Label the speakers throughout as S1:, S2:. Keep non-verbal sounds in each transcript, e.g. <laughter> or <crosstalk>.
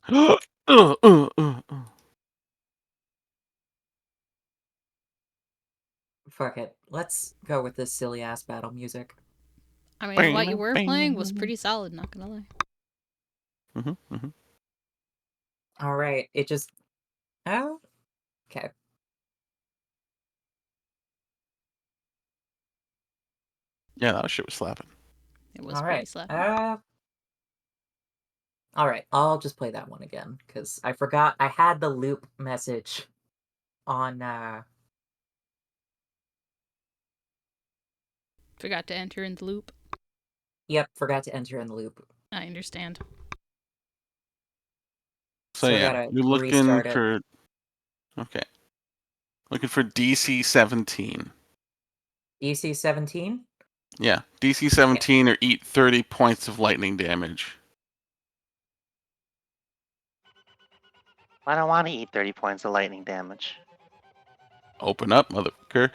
S1: <gasps>
S2: Uh, uh, uh, uh.
S1: Fuck it. Let's go with this silly ass battle music.
S3: I mean, what you were playing was
S2: Mhm,
S3: pretty solid, not gonna lie.
S2: mhm.
S1: All right. It just. Oh, okay.
S2: Yeah, that shit was slapping.
S3: It was
S1: All
S3: pretty
S1: right.
S3: slapping.
S1: Uh, all right. I'll just play that one again because I forgot I had the loop message on. uh
S3: Forgot to enter in the loop.
S1: Yep, forgot to enter in the loop.
S3: I understand.
S2: So
S1: So I
S2: yeah,
S1: gotta
S2: you're looking
S1: restart it.
S2: for okay, looking for DC seventeen.
S1: EC E seventeen.
S2: Yeah, DC seventeen or eat thirty points of lightning damage.
S4: I don't want to eat 30 points of lightning damage.
S2: Open up, motherfucker.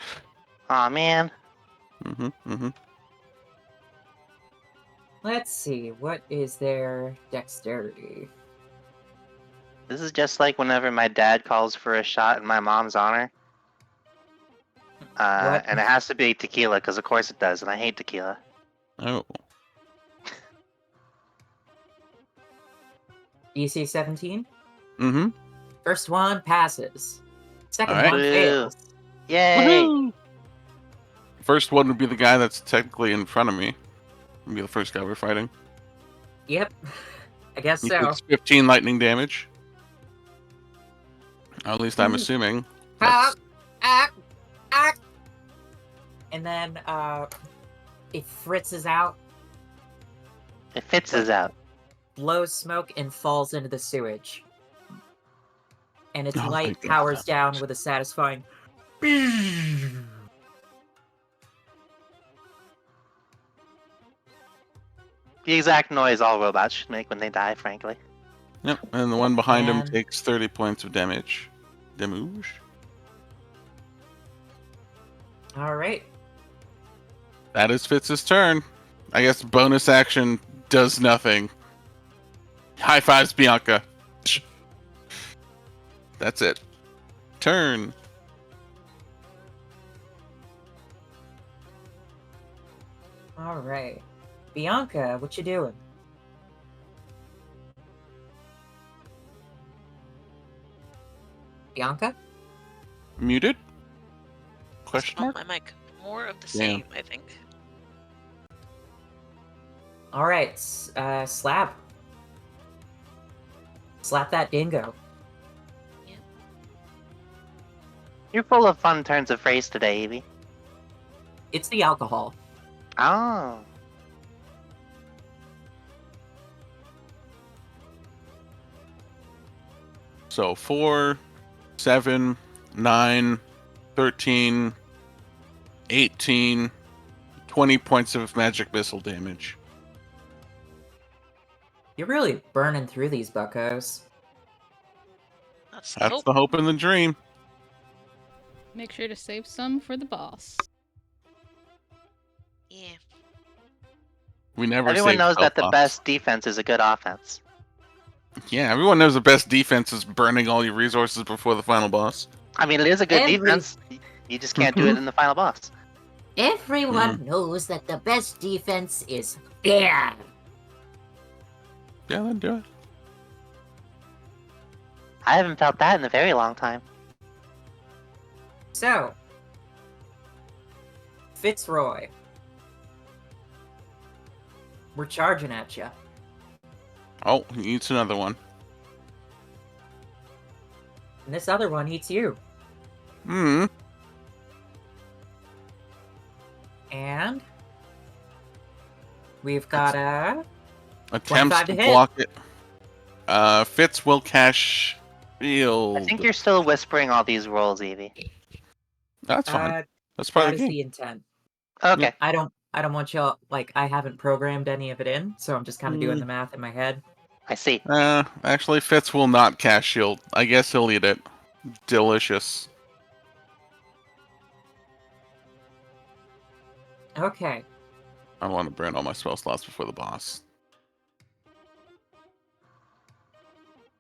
S4: Aw, man.
S2: hmm hmm
S1: Let's see. What is their dexterity?
S4: This is just like whenever my dad calls for a shot in my mom's honor. Uh,
S1: What?
S4: and it has to be tequila, because of course it does, and I hate tequila.
S2: Oh,
S1: EC E seventeen.
S2: hmm
S1: First one passes. Second
S2: All right.
S1: one
S4: Boo.
S1: fails.
S4: Yay!
S2: First one would be the guy that's technically in front of me. Would be the first guy we're fighting.
S1: Yep. <laughs> I guess
S2: He <laughs>
S1: so.
S2: takes fifteen lightning damage. At least I'm
S1: Mm.
S2: assuming.
S1: Ah,
S2: That's-
S1: ah, ah. And then uh, it fritzes out,
S4: It fits us out.
S1: blows smoke, and falls into the sewage. And its
S2: Oh,
S1: light
S2: thank God.
S1: powers down with a satisfying.
S4: The exact noise all robots should make when they die, frankly.
S2: Yep, and the one behind him
S1: And-
S2: takes 30 points of damage. Damage?
S1: All right.
S2: That is Fitz's turn. I guess bonus action does nothing. High fives, Bianca. That's it. Turn.
S1: All right. Bianca, what you doing? Bianca?
S2: Muted?
S5: What's
S2: Question
S5: on
S2: mark?
S5: my mic? More of the
S2: Damn.
S5: same, I think.
S1: All right. s- Uh, slap. Slap that dingo.
S4: You're full of fun turns of phrase today, Evie.
S1: It's the alcohol.
S4: Oh.
S2: So 4, 7, 9, 13, 18, 20 points of magic missile damage.
S1: You're really burning through these buckos.
S5: That's the
S2: That's
S5: hope.
S2: the hope and the dream.
S3: Make sure to save some for the boss.
S5: Yeah.
S2: We never
S4: Everyone
S2: save
S4: knows that the
S2: Belfast.
S4: best defense is a good offense.
S2: Yeah, everyone knows the best defense is burning all your resources before the final boss.
S4: I mean, it is a good
S1: Every-
S4: defense. y- You just can't do it in the final boss.
S2: Mm.
S1: Everyone knows that the best defense is fear.
S2: Yeah, then do it.
S4: I haven't felt that in a very long time.
S1: So, Fitzroy, we're charging at you.
S2: Oh, he eats another one.
S1: And this other one eats you.
S2: Hmm.
S1: And we've got a.
S2: Attempts to
S1: 25 to hit.
S2: block it. Uh, Fitz will cash shield.
S4: I think you're still whispering all these roles, Evie.
S2: That's fine.
S1: Uh,
S2: That's part of
S1: that is
S2: the game.
S1: the intent.
S4: Okay.
S1: I don't. I don't want y'all. Like, I haven't programmed any of it in, so I'm just kind of doing
S2: Mm.
S1: the math in my head.
S4: I see.
S2: Uh, actually, Fitz will not cash shield. I guess he'll eat it. Delicious.
S1: Okay.
S2: I want to burn all my spell slots before the boss.